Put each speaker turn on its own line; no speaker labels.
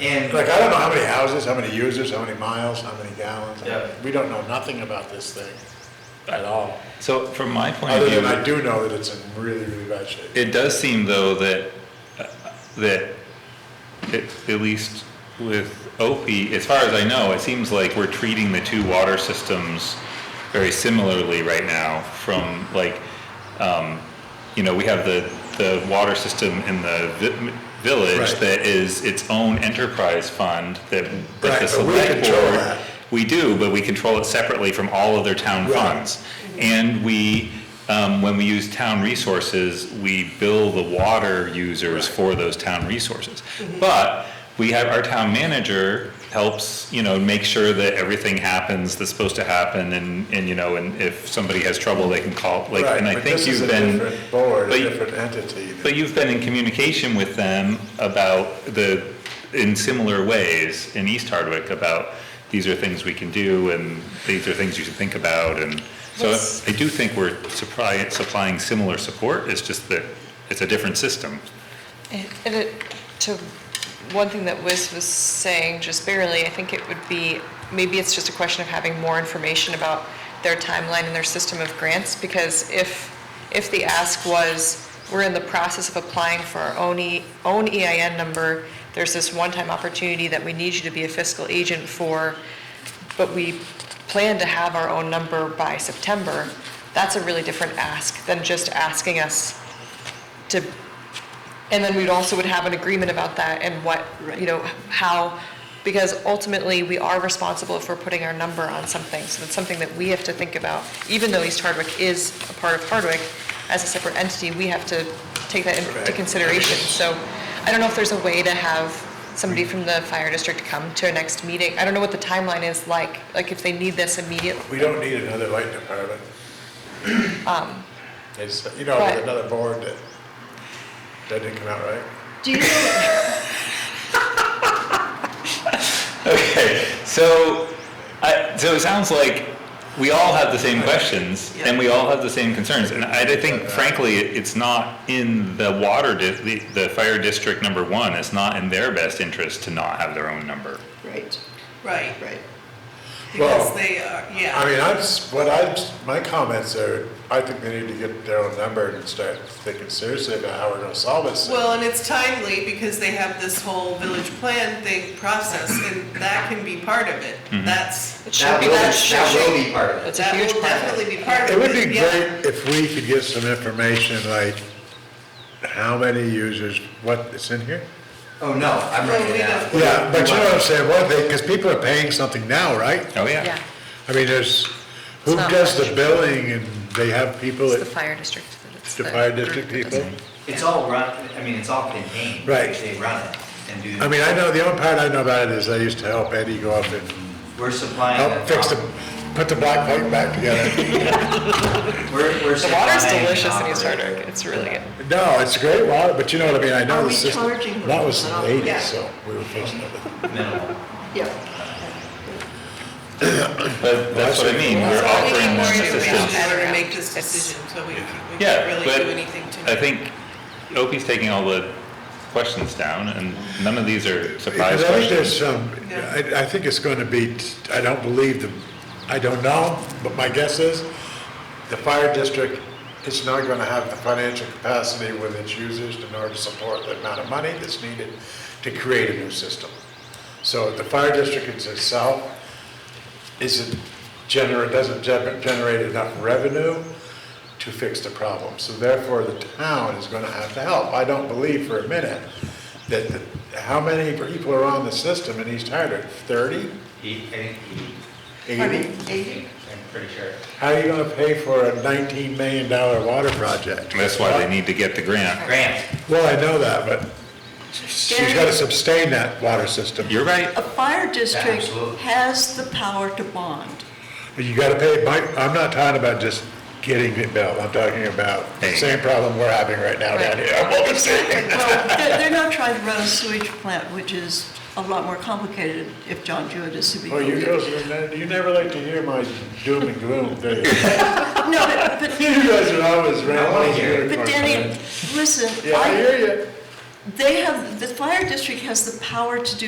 And.
Like, I don't know how many houses, how many users, how many miles, how many gallons.
Yeah.
We don't know nothing about this thing at all.
So from my point of
Other
view,
than I do know that it's in really, really bad shape.
it does seem though that, uh, that, at, at least with Opie, as far as I know, it seems like we're treating the two water systems very similarly right now from like, um, you know, we have the, the water system in the vi- village
Right.
that is its own enterprise fund that, that
Right,
the
but we
select
control
board.
that.
We do, but we control it separately from all other town
Right.
funds. And we, um, when we use town resources, we bill the water users for those town resources. But we have, our town manager helps, you know, make sure that everything happens that's supposed to happen and, and, you know, and if somebody has trouble, they can call, like,
Right,
and I
but
think
this is
you've
a
been.
different Board, a
but-
different entity.
but you've been in communication with them about the, in similar ways in East Hardwick about these are things we can do and these are things you should think about and so
Yes.
I do think we're supplying, supplying similar support, it's just that it's a different system.
And it, to one thing that Wiz was saying just barely, I think it would be, maybe it's just a question of having more information about their timeline and their system of grants, because if, if the ask was, we're in the process of applying for our own, E- own EIN number, there's this one-time opportunity that we need you to be a fiscal agent for, but we plan to have our own number by September, that's a really different ask than just asking us to and then we'd also would have an agreement about that and what, you know, how, because ultimately, we are responsible if we're putting our number on something. So that's something that we have to think about, even though East Hardwick is a part of Hardwick, as a separate entity, we have to take that into
Correct.
consideration. So I don't know if there's a way to have somebody from the fire district come to our next meeting. I don't know what the timeline is like, like if they need this immediately.
We don't need another light department. It's, you know,
but-
with another board that, that didn't come out right.
Do you know,
Okay, so, I, so it sounds like we all have the same questions and we all have the same concerns. And I, I think frankly, it- it's not in the water, di- the, the fire district number one, it's not in their best interest to not have their own number.
right,
Right,
right.
Well,
because they are,
I
yeah,
mean, I'm, s- what I, my comments are, I think they need to get their own number and start thinking seriously about how we're gonna solve this. thing.
well, and it's timely because they have this whole village plan thing process, and that can be part of it,
Mm-hmm.
that's,
It
That
should be,
will, be-
that should-
that will be part of it.
That's a
that
huge
will
part of it.
definitely be part
It
of it.
would be
yeah.
great if we could get some information, like how many users, what, it's in here?
Oh, no, I'm writing it
No, we
down.
don't.
Yeah, but you know what I'm saying, what they, because people are paying something now, right?
Oh,
Yeah,
I mean, there's, who
It's not
does the
much.
billing and they have people
it's
at
the fire district. that it's
the
the
fire
group
district
that does
people?
it.
It's all run, I mean, it's all contained.
Right.
They run it and do.
I mean, I know, the only part I know about it is I used to help Eddie go up and
We're supplying.
help fix the, put the black pipe back together.
We're, we're
The
supplying.
water's delicious
an
in East
operator.
Hardwick, it's really good.
No, it's great water, but you know what I mean, I know
Are
the
we
system.
charging
That was
them?
the eighties,
Yeah.
so we were fixing it.
Minimal.
Yeah,
But that's what I mean, we're
Well, we need
offering
more
them
information.
assistance.
In order to make this decision, so we we can't
Yeah,
really
but
do anything tonight.
I think Opie's taking all the questions down and none of these are surprise
Because I think there's
questions.
some, um, I, I think it's going to be, I don't believe the, I don't know, but my guess is the fire district is not going to have the financial capacity with its users in order to support the amount of money that's needed to create a new system. So the fire district itself isn't generate, doesn't gener- generate enough revenue to fix the problem. So therefore, the town is gonna have to help. I don't believe for a minute that, the- how many people are on the system in East Hardwick? Thirty?
He, I think he,
Eighty?
I'm pretty sure.
How are you gonna pay for a nineteen million dollar water project?
That's why they need to get the grant.
Grant,
Well, I know that, but she's gotta sustain that water system.
You're right.
a fire district
Absolutely.
has the power to bond.
You gotta pay, my, I'm not talking about just getting it built, I'm talking about the
Hey.
same problem we're having right now down
Right.
here. I'm almost saying.
Well, they're, they're not trying to run a sewage plant, which is a lot more complicated if John Jewett is to be.
Well, Oh, you
elected.
girls, are ne- you never like to hear my doom and gloom, do you?
No, but, but,
You guys are always rambling.
but Danny, listen,
Yeah, I
I,
hear you.
they have, the fire district has the power to do